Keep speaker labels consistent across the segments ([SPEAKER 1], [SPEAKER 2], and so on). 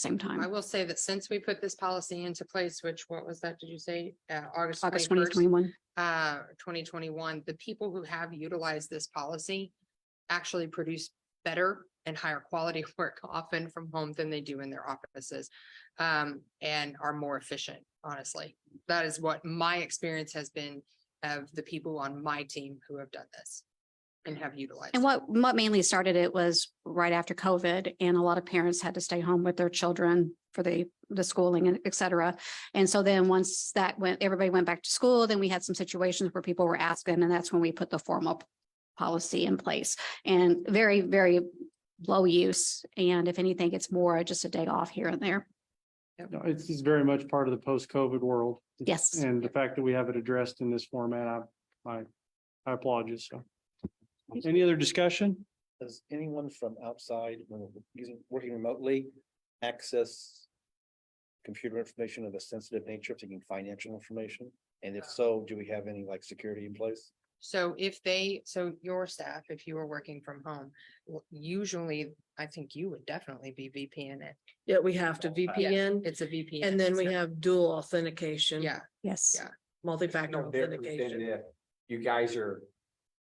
[SPEAKER 1] same
[SPEAKER 2] I
[SPEAKER 1] time,
[SPEAKER 2] will say that since we put this policy into place, which what was that, did you say? Uh, August
[SPEAKER 1] August
[SPEAKER 2] twenty
[SPEAKER 1] twenty
[SPEAKER 2] first,
[SPEAKER 1] twenty-one.
[SPEAKER 2] uh, twenty twenty one, the people who have utilized this policy actually produce better and higher quality work often from home than they do in their offices. Um, and are more efficient, honestly. That is what my experience has been of the people on my team who have done this and have utilized.
[SPEAKER 1] And
[SPEAKER 2] it.
[SPEAKER 1] what, what mainly started it was right after COVID and a lot of parents had to stay home with their children for the, the schooling and et cetera. And so then once that went, everybody went back to school, then we had some situations where people were asking and that's when we put the formal p- policy in place and very, very low use. And if anything, it's more just a day off here and there.
[SPEAKER 3] No, It's it's very much part of the post-COVID world.
[SPEAKER 1] Yes.
[SPEAKER 3] And the fact that we have it addressed in this format, I, I, I applaud you, so. Any other discussion?
[SPEAKER 4] Does anyone from outside, when we're using, working remotely, access computer information of a sensitive nature, taking financial information? And if so, do we have any like security in place?
[SPEAKER 2] So if they, so your staff, if you were working from home, w- usually, I think you would definitely be VPN it.
[SPEAKER 5] Yeah, we have to VPN
[SPEAKER 2] It's a VPN.
[SPEAKER 5] and then
[SPEAKER 2] it's
[SPEAKER 5] we
[SPEAKER 2] not-
[SPEAKER 5] have dual authentication.
[SPEAKER 2] Yeah,
[SPEAKER 1] Yes.
[SPEAKER 2] Yeah.
[SPEAKER 5] Multi-factor
[SPEAKER 6] No difference than
[SPEAKER 5] authentication.
[SPEAKER 6] if You guys are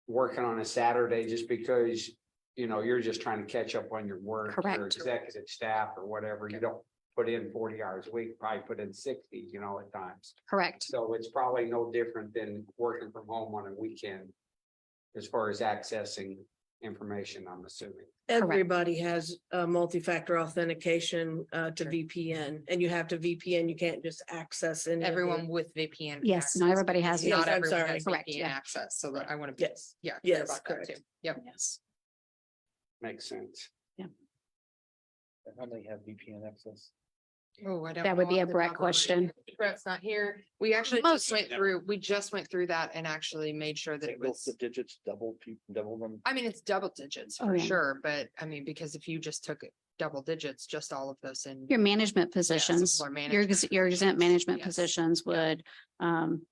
[SPEAKER 6] working on a Saturday just because, you know, you're just trying to catch up on your work.
[SPEAKER 1] Correct.
[SPEAKER 6] Your executive staff or whatever. You don't put in forty hours a week, probably put in sixty, you know, at times.
[SPEAKER 1] Correct.
[SPEAKER 6] So it's probably no different than working from home on a weekend as far as accessing information, I'm assuming.
[SPEAKER 5] Everybody has a multi-factor authentication uh to
[SPEAKER 2] Sure.
[SPEAKER 5] VPN and you have to VPN. You can't just access any. of the-
[SPEAKER 2] everyone with VPN.
[SPEAKER 1] Yes, not
[SPEAKER 2] access.
[SPEAKER 1] everybody has.
[SPEAKER 5] Yes,
[SPEAKER 2] Not
[SPEAKER 5] I'm
[SPEAKER 2] everyone
[SPEAKER 5] sorry.
[SPEAKER 2] has
[SPEAKER 1] Correct,
[SPEAKER 2] VPN
[SPEAKER 1] yeah.
[SPEAKER 2] access, so that I want to be,
[SPEAKER 5] Yes,
[SPEAKER 2] yeah. clear about
[SPEAKER 5] Yes,
[SPEAKER 2] that
[SPEAKER 5] correct.
[SPEAKER 2] too. Yep.
[SPEAKER 1] Yes.
[SPEAKER 6] Makes sense.
[SPEAKER 4] And How many have VPN access?
[SPEAKER 2] Oh, I don't.
[SPEAKER 1] That would
[SPEAKER 2] know
[SPEAKER 1] be
[SPEAKER 2] off
[SPEAKER 1] a
[SPEAKER 2] the
[SPEAKER 1] Brett
[SPEAKER 2] top of my
[SPEAKER 1] question.
[SPEAKER 2] head. Brett's not here. We actually
[SPEAKER 1] Most-
[SPEAKER 2] just went through, we just went through that and actually made sure that it
[SPEAKER 4] Both
[SPEAKER 2] was.
[SPEAKER 4] the digits, double, peop- double them.
[SPEAKER 2] I mean, it's double digits
[SPEAKER 1] Oh,
[SPEAKER 2] for
[SPEAKER 1] yeah.
[SPEAKER 2] sure, but I mean, because if you just took it double digits, just all of those in.
[SPEAKER 1] Your management positions,
[SPEAKER 2] or
[SPEAKER 1] your,
[SPEAKER 2] management
[SPEAKER 1] ex- your exempt management
[SPEAKER 2] Yes.
[SPEAKER 1] positions would, um,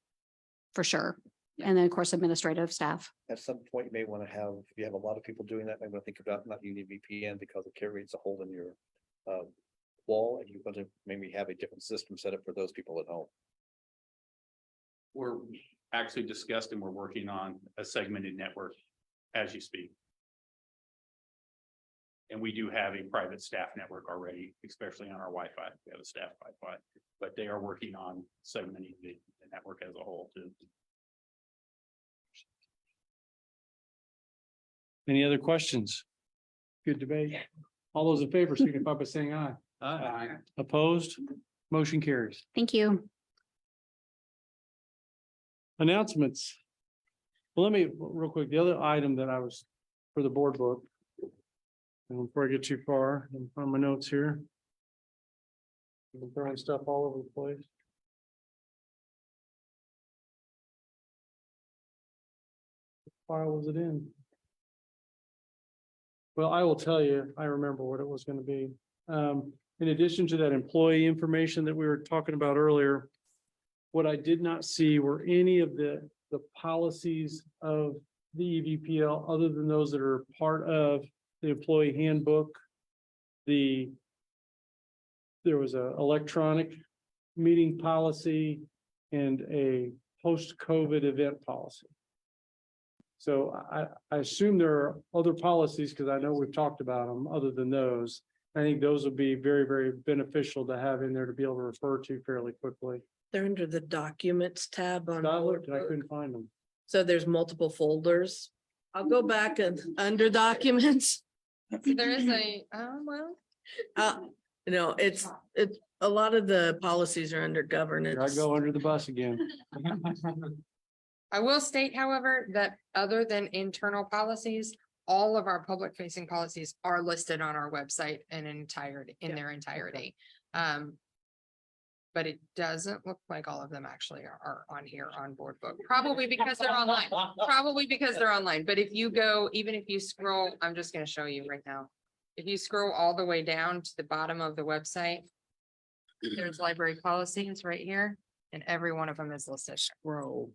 [SPEAKER 1] for sure.
[SPEAKER 2] Yeah.
[SPEAKER 1] And then, of course, administrative staff.
[SPEAKER 4] At some point, you may want to have, if you have a lot of people doing that, I want to think about not using VPN because it creates a hole in your um, wall and you want to maybe have a different system set up for those people at home.
[SPEAKER 7] we're actually discussed and we're working on a segmented network as you speak. And we do have a private staff network already, especially on our Wi-Fi. We have a staff Wi-Fi, but they are working on segmenting the the network as a whole to
[SPEAKER 3] Any other questions? Good debate. All those in favor signify by saying aye. Aye.
[SPEAKER 6] Uh,
[SPEAKER 3] Opposed? Motion carries.
[SPEAKER 1] Thank you.
[SPEAKER 3] Announcements. Well, Let me, real quick, the other item that I was for the board book. And before I get too far, and from my notes here. I've been throwing stuff all over the place. What File was it in? Well, I will tell you, I remember what it was gonna be. Um, in addition to that employee information that we were talking about earlier. What I did not see were any of the, the policies of the E EVPL, other than those that are part of the employee handbook. The. There was a electronic meeting policy and a post-COVID event policy. So I, I assume there are other policies, because I know we've talked about them, other than those. I think those would be very, very beneficial to have in there to be able to refer to fairly quickly.
[SPEAKER 5] They're under the documents tab on.
[SPEAKER 3] But I looked and I
[SPEAKER 5] Outlook.
[SPEAKER 3] couldn't find them.
[SPEAKER 5] So there's multiple folders. I'll go back and under documents.
[SPEAKER 2] There is a, oh, well.
[SPEAKER 5] Uh, no, it's, it's, a lot of the policies are under
[SPEAKER 3] Here I
[SPEAKER 5] governance.
[SPEAKER 3] go under the bus again.
[SPEAKER 2] I will state, however, that other than internal policies, all of our public facing policies are listed on our website in entirety, in
[SPEAKER 5] Yeah.
[SPEAKER 2] their entirety. Um. But it doesn't look like all of them actually are, are on here on board book, probably because they're online, probably because they're online. But if you go, even if you scroll, I'm just gonna show you right now. If you scroll all the way down to the bottom of the website, there's library policies right here, and every one of them is listed.
[SPEAKER 5] Row.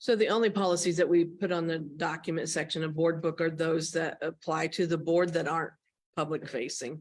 [SPEAKER 5] So the only policies that we put on the document section of board book are those that apply to the board that aren't public facing.